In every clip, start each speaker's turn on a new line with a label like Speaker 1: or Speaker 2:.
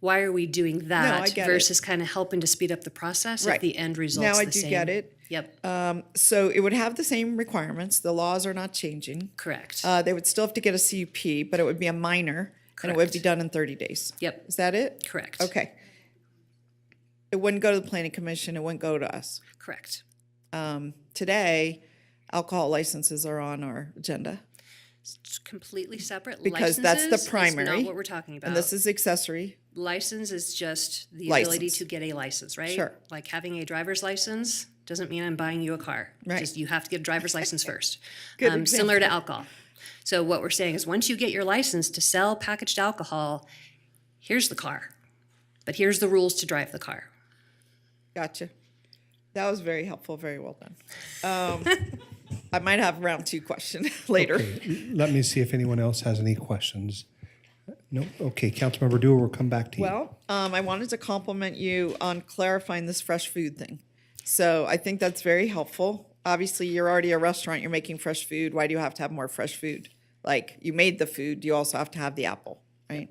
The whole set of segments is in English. Speaker 1: why are we doing that
Speaker 2: get it.
Speaker 1: versus kind of helping to speed up the process if
Speaker 2: Right.
Speaker 1: the end result's
Speaker 2: Now I
Speaker 1: the
Speaker 2: do
Speaker 1: same?
Speaker 2: get it.
Speaker 1: Yep,
Speaker 2: Um, so it would have the same requirements. The laws are not changing.
Speaker 1: correct.
Speaker 2: Uh, they would still have to get a CUP, but it would be a minor and it would be done in 30 days.
Speaker 1: yep,
Speaker 2: Is that it?
Speaker 1: correct.
Speaker 2: Okay. It wouldn't go to the planning commission. It wouldn't go to us.
Speaker 1: Correct.
Speaker 2: Um, today, alcohol licenses are on our agenda.
Speaker 1: It's completely separate.
Speaker 2: Because that's the
Speaker 1: Licenses is
Speaker 2: primary,
Speaker 1: not what we're talking about.
Speaker 2: And this is accessory.
Speaker 1: license is just the ability
Speaker 2: License.
Speaker 1: to get a license, right?
Speaker 2: Sure.
Speaker 1: Like having a driver's license doesn't mean I'm buying you a car.
Speaker 2: Right.
Speaker 1: Just you have to get a driver's license first. um, similar to alcohol. So what we're saying is once you get your license to sell packaged alcohol, here's the car. But here's the rules to drive the car.
Speaker 2: Gotcha. That was very helpful. Very well done. Um, I might have round two question later.
Speaker 3: Let me see if anyone else has any questions. No, okay, Councilmember Dewar, we'll come back to you.
Speaker 2: Well, um, I wanted to compliment you on clarifying this fresh food thing. So I think that's very helpful. Obviously, you're already a restaurant, you're making fresh food. Why do you have to have more fresh food? Like, you made the food, you also have to have the apple, right?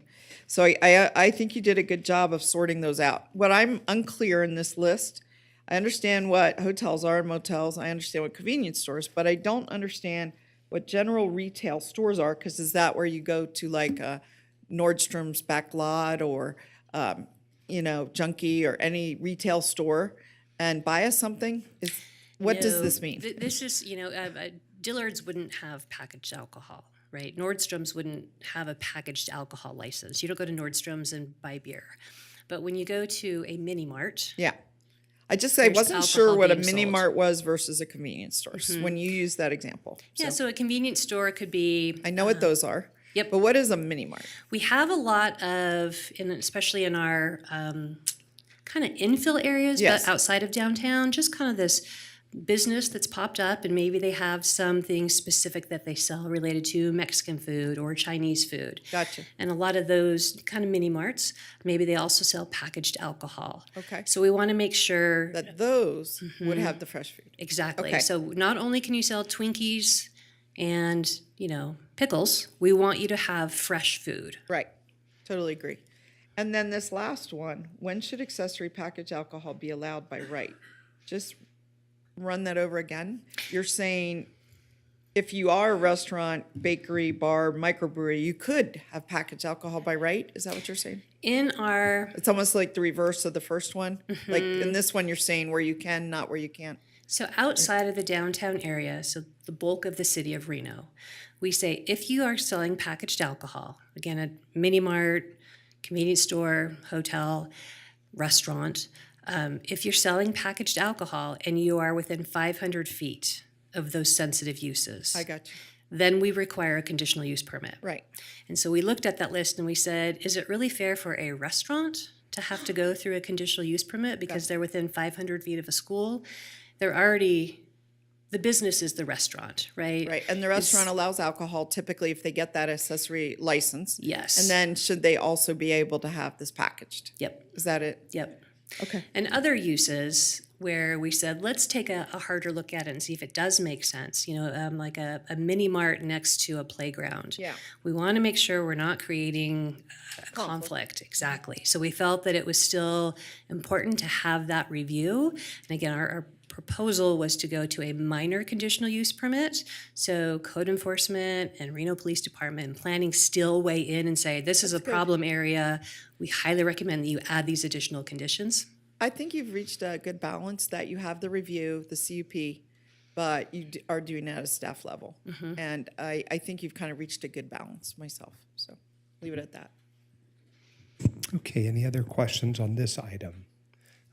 Speaker 2: So I, I, I think you did a good job of sorting those out. What I'm unclear in this list, I understand what hotels are and motels, I understand what convenience stores, but I don't understand what general retail stores are, because is that where you go to like a Nordstrom's back lot or, um, you know, Junkie or any retail store and buy us something? Is, what does
Speaker 1: No,
Speaker 2: this mean?
Speaker 1: th- this is, you know, uh, uh, Dillard's wouldn't have packaged alcohol, right? Nordstrom's wouldn't have a packaged alcohol license. You don't go to Nordstrom's and buy beer. But when you go to a mini mart,
Speaker 2: Yeah. I just, I wasn't sure
Speaker 1: alcohol
Speaker 2: what a
Speaker 1: being
Speaker 2: mini
Speaker 1: sold. Mm-hmm.
Speaker 2: mart was versus a convenience store when you used that example.
Speaker 1: yeah,
Speaker 2: So
Speaker 1: so a convenience store could be
Speaker 2: I know what those are.
Speaker 1: Uh-huh. yep.
Speaker 2: But what is a mini mart?
Speaker 1: We have a lot of, and especially in our um, kind of infill areas,
Speaker 2: Yes.
Speaker 1: but outside of downtown, just kind of this business that's popped up, and maybe they have something specific that they sell related to Mexican food or Chinese food.
Speaker 2: Gotcha.
Speaker 1: And a lot of those kind of mini marts, maybe they also sell packaged alcohol.
Speaker 2: Okay.
Speaker 1: So we want to make sure
Speaker 2: That those
Speaker 1: Mm-hmm.
Speaker 2: would have the fresh food.
Speaker 1: Exactly.
Speaker 2: Okay.
Speaker 1: So not only can you sell Twinkies and, you know, pickles, we want you to have fresh food.
Speaker 2: Right. Totally agree. And then this last one, when should accessory package alcohol be allowed by right? Just run that over again. You're saying if you are a restaurant, bakery, bar, microbrewery, you could have packaged alcohol by right? Is that what you're saying?
Speaker 1: In our
Speaker 2: It's almost like the reverse of the first one. Like in this one, you're saying where you can, not where you can't.
Speaker 1: So outside of the downtown area, so the bulk of the city of Reno, we say if you are selling packaged alcohol, again, a mini mart, convenience store, hotel, restaurant, um, if you're selling packaged alcohol and you are within 500 feet of those sensitive uses,
Speaker 2: I got you.
Speaker 1: then we require a conditional use permit.
Speaker 2: Right.
Speaker 1: And so we looked at that list and we said, is it really fair for a restaurant to have to go through a conditional use permit because they're within 500 feet of a school? They're already, the business is the restaurant, right?
Speaker 2: Right. And the restaurant allows alcohol typically if they get that accessory license.
Speaker 1: Yes.
Speaker 2: And then should they also be able to have this packaged?
Speaker 1: Yep,
Speaker 2: Is that it?
Speaker 1: yep.
Speaker 2: Okay.
Speaker 1: And other uses where we said, let's take a, a harder look at it and see if it does make sense, you know, um, like a, a mini mart next to a playground.
Speaker 2: Yeah.
Speaker 1: We want to make sure we're not creating a conflict, exactly. So we felt that it was still important to have that review. And again, our, our proposal was to go to a minor conditional use permit. So code enforcement and Reno Police Department and planning still weigh in and say, this is a problem area. We highly recommend that you add these additional conditions.
Speaker 2: I think you've reached a good balance that you have the review, the CUP, but you d- are doing it at a staff level. And I, I think you've kind of reached a good balance myself. So leave it at that.
Speaker 3: Okay, any other questions on this item?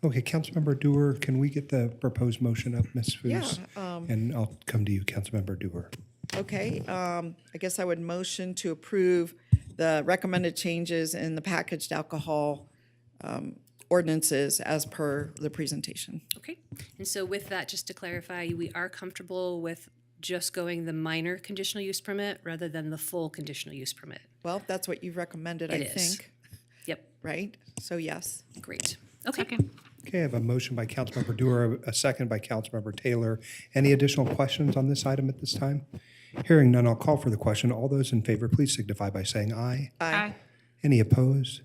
Speaker 3: Okay, Councilmember Dewar, can we get the proposed motion up, Ms. Fuess? And I'll come to you, Councilmember Dewar.
Speaker 2: Okay, um, I guess I would motion to approve the recommended changes in the packaged alcohol um, ordinances as per the presentation.
Speaker 1: Okay, and so with that, just to clarify, we are comfortable with just going the minor conditional use permit rather than the full conditional use permit?
Speaker 2: Well, that's what you've recommended, I
Speaker 1: It is.
Speaker 2: think,
Speaker 1: Yep,
Speaker 2: right? So yes.
Speaker 1: great. Okay,
Speaker 3: Okay, I have a motion by Councilmember Dewar, a second by Councilmember Taylor. Any additional questions on this item at this time? Hearing none, I'll call for the question. All those in favor, please signify by saying aye.
Speaker 2: Aye.
Speaker 3: Any opposed?